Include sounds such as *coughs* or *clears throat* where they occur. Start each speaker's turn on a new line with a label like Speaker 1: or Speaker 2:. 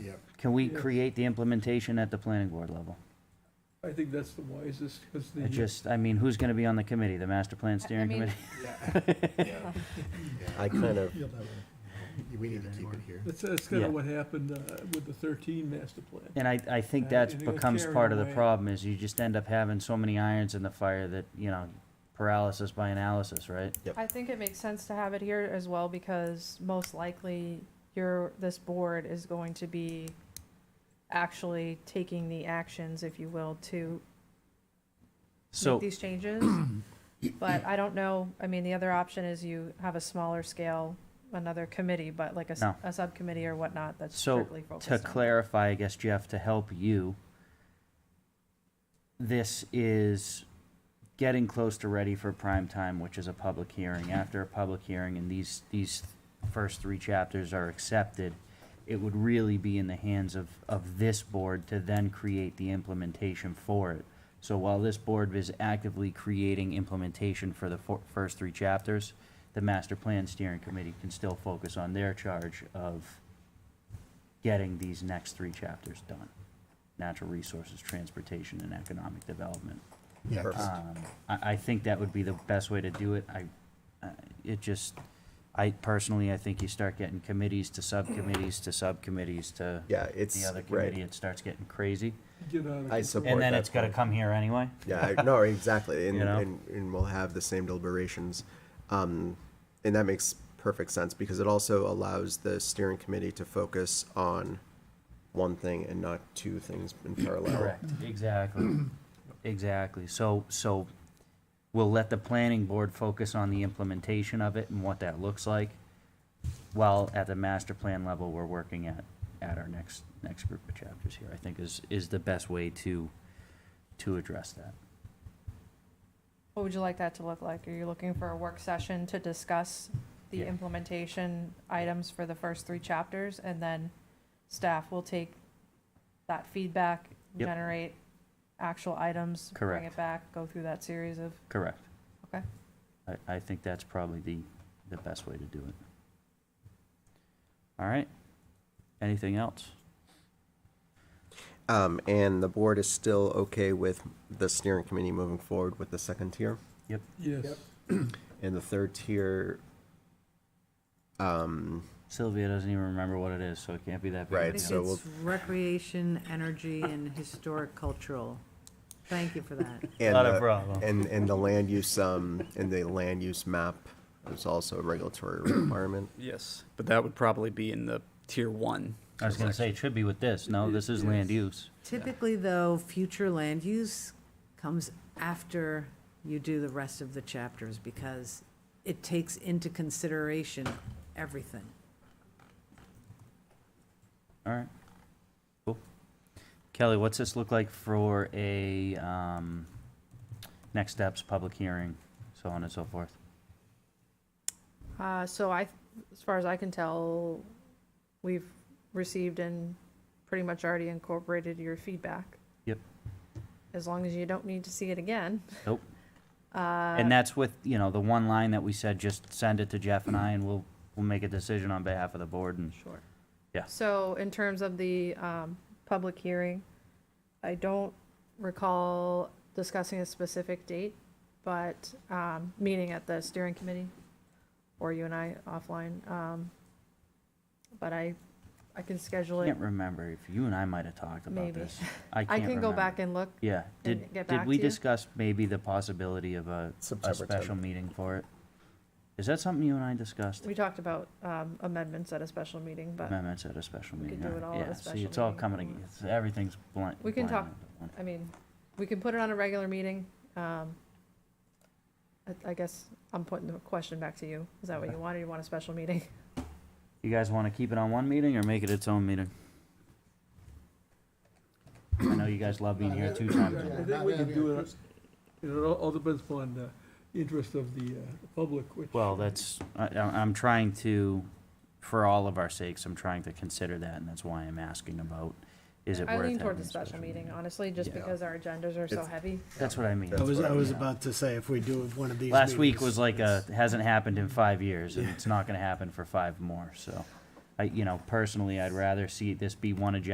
Speaker 1: Can we create the implementation at the planning board level?
Speaker 2: I think that's the wisest, because the.
Speaker 1: It just, I mean, who's gonna be on the committee? The master plan
Speaker 3: I
Speaker 1: steering
Speaker 3: mean-
Speaker 1: committee?
Speaker 4: *laughs* I kind of,
Speaker 5: You'll never.
Speaker 4: we need to keep it here.
Speaker 2: That's, that's
Speaker 1: Yeah.
Speaker 2: kinda what happened, uh, with the thirteen master plan.
Speaker 1: And I, I think
Speaker 2: Uh,
Speaker 1: that's
Speaker 2: and it was
Speaker 1: becomes
Speaker 2: carried
Speaker 1: part of the
Speaker 2: away.
Speaker 1: problem, is you just end up having so many irons in the fire that, you know, paralysis by analysis, right?
Speaker 3: I think it makes sense to have it here as well because most likely your, this board is going to be actually taking the actions, if you will, to
Speaker 1: So.
Speaker 3: make
Speaker 1: *coughs*
Speaker 3: these changes. But I don't know, I mean, the other option is you have a smaller scale, another committee, but like a, s-
Speaker 1: No.
Speaker 3: a subcommittee or whatnot that's
Speaker 1: So,
Speaker 3: strictly focused
Speaker 1: to
Speaker 3: on.
Speaker 1: clarify, I guess, Jeff, to help you, this is getting close to ready for prime time, which is a public hearing. After a public hearing, and these, these first three chapters are accepted, it would really be in the hands of, of this board to then create the implementation for it. So while this board is actively creating implementation for the fir- first three chapters, the master plan steering committee can still focus on their charge of getting these next three chapters done. Natural resources, transportation, and economic development.
Speaker 5: Yeah,
Speaker 4: Perfect.
Speaker 1: Um, I, I think that would be the best way to do it. I, I- it just, I personally, I think you start getting committees to subcommittees to subcommittees to
Speaker 4: Yeah,
Speaker 1: the
Speaker 4: it's,
Speaker 1: other committee,
Speaker 4: right.
Speaker 1: it starts getting crazy.
Speaker 2: Get out of.
Speaker 4: I
Speaker 2: control.
Speaker 4: support- Or
Speaker 1: And then
Speaker 4: at
Speaker 1: it's
Speaker 4: that
Speaker 1: gotta
Speaker 4: point.
Speaker 1: come here anyway.
Speaker 4: Yeah, I- no, exactly.
Speaker 1: *laughs*
Speaker 4: And,
Speaker 1: You know?
Speaker 4: and, and we'll have the same deliberations. Um, and that makes perfect sense because it also allows the steering committee to focus on one thing and not two things
Speaker 1: *clears throat*
Speaker 4: in parallel.
Speaker 1: Correct, exactly, exactly. So, so we'll let the planning board focus on the implementation of it and what that looks like, while at the master plan level, we're working at, at our next, next group of chapters here, I think is, is the best way to, to address that.
Speaker 3: What would you like that to look like? Are you looking for a work session to discuss the
Speaker 1: Yeah.
Speaker 3: implementation items for the first three chapters? And then staff will take that feedback,
Speaker 1: Yep.
Speaker 3: generate actual items, bring
Speaker 1: Correct.
Speaker 3: it back, go through that series of,
Speaker 1: Correct.
Speaker 3: okay?
Speaker 1: I, I think that's probably the, the best way to do it. All right, anything else?
Speaker 4: Um, and the board is still okay with the steering committee moving forward with the second tier.
Speaker 1: Yep.
Speaker 2: Yes,
Speaker 4: And the third tier, um,
Speaker 1: Sylvia doesn't even remember what it is, so it can't be that big. of a
Speaker 4: Right,
Speaker 1: deal.
Speaker 4: so we'll-
Speaker 6: It's recreation, energy, and historic cultural. Thank you
Speaker 4: *laughs*
Speaker 6: for that.
Speaker 4: and
Speaker 1: Not a
Speaker 4: the-
Speaker 1: problem.
Speaker 4: And, and the land use, um, and the land use map is also a regulatory requirement.
Speaker 7: Yes, but that would probably be in the tier one.
Speaker 1: I was gonna say, it should be with this. No, this is land use.
Speaker 6: Typically, though, future land use comes after you do the rest of the chapters because it takes into consideration everything.
Speaker 1: All right. Cool. Kelly, what's this look like for a, um, next steps, public hearing, so on and so forth?
Speaker 3: Uh, so I, as far as I can tell, we've received and pretty much already incorporated your feedback.
Speaker 1: Yep.
Speaker 3: As long as you don't need to see it again.
Speaker 1: Nope.
Speaker 3: Uh,
Speaker 1: And that's with, you know, the one line that we said, just send it to Jeff and I and we'll, we'll make a decision on behalf of the board and,
Speaker 3: Sure.
Speaker 1: Yeah.
Speaker 3: So in terms of the um, public hearing, I don't recall discussing a specific date, but um, meeting at the steering committee, or you and I offline. um, But I, I can schedule it.
Speaker 1: can't remember if you and I might have talked about
Speaker 3: Maybe. *laughs*
Speaker 1: this. I
Speaker 3: I
Speaker 1: can't
Speaker 3: can go
Speaker 1: remember.
Speaker 3: back and look.
Speaker 1: Yeah, did,
Speaker 3: and get
Speaker 1: did
Speaker 3: back
Speaker 1: we
Speaker 3: to you.
Speaker 1: discuss maybe the possibility of a, a
Speaker 4: September
Speaker 1: special
Speaker 4: 10th.
Speaker 1: meeting for it? Is that something you and I discussed?
Speaker 3: We talked about um, amendments at a special meeting, but,
Speaker 1: Amendments at a special
Speaker 3: We could
Speaker 1: meeting.
Speaker 3: do
Speaker 1: all right.
Speaker 3: it all at a
Speaker 1: Yeah, See,
Speaker 3: special
Speaker 1: it's all
Speaker 3: meeting.
Speaker 1: coming, ag- it's- everything's blind.
Speaker 3: We can talk-
Speaker 1: blinded.
Speaker 3: I mean, we can put it on a regular meeting. um, I- I guess I'm putting the question back to you. Is that what you want, or you want a special meeting?
Speaker 1: You guys want to keep it on one meeting or make it its own meeting? I know you guys love being here two times. a
Speaker 2: I
Speaker 1: month.
Speaker 2: think we can do it, you know, it all- all depends upon the interest of the, uh, the public, which.
Speaker 1: Well, that's, I, I- I'm trying to, for all of our sakes, I'm trying to consider that and that's why I'm asking about, is it worth
Speaker 3: I
Speaker 1: having
Speaker 3: lean toward
Speaker 1: a
Speaker 3: the special meeting, honestly, just
Speaker 4: Yeah.
Speaker 3: because our agendas are so
Speaker 4: It's-
Speaker 3: heavy.
Speaker 1: That's what I mean.
Speaker 4: That's
Speaker 5: I was,
Speaker 4: what
Speaker 5: I
Speaker 4: I
Speaker 5: was
Speaker 1: mean.
Speaker 5: about to say, if we do one of these.
Speaker 1: Last week
Speaker 5: meetings,
Speaker 1: was like a,
Speaker 5: it's-
Speaker 1: hasn't happened in five years, and it's not gonna happen for five more, so. I, you know, personally, I'd rather see this be one agenda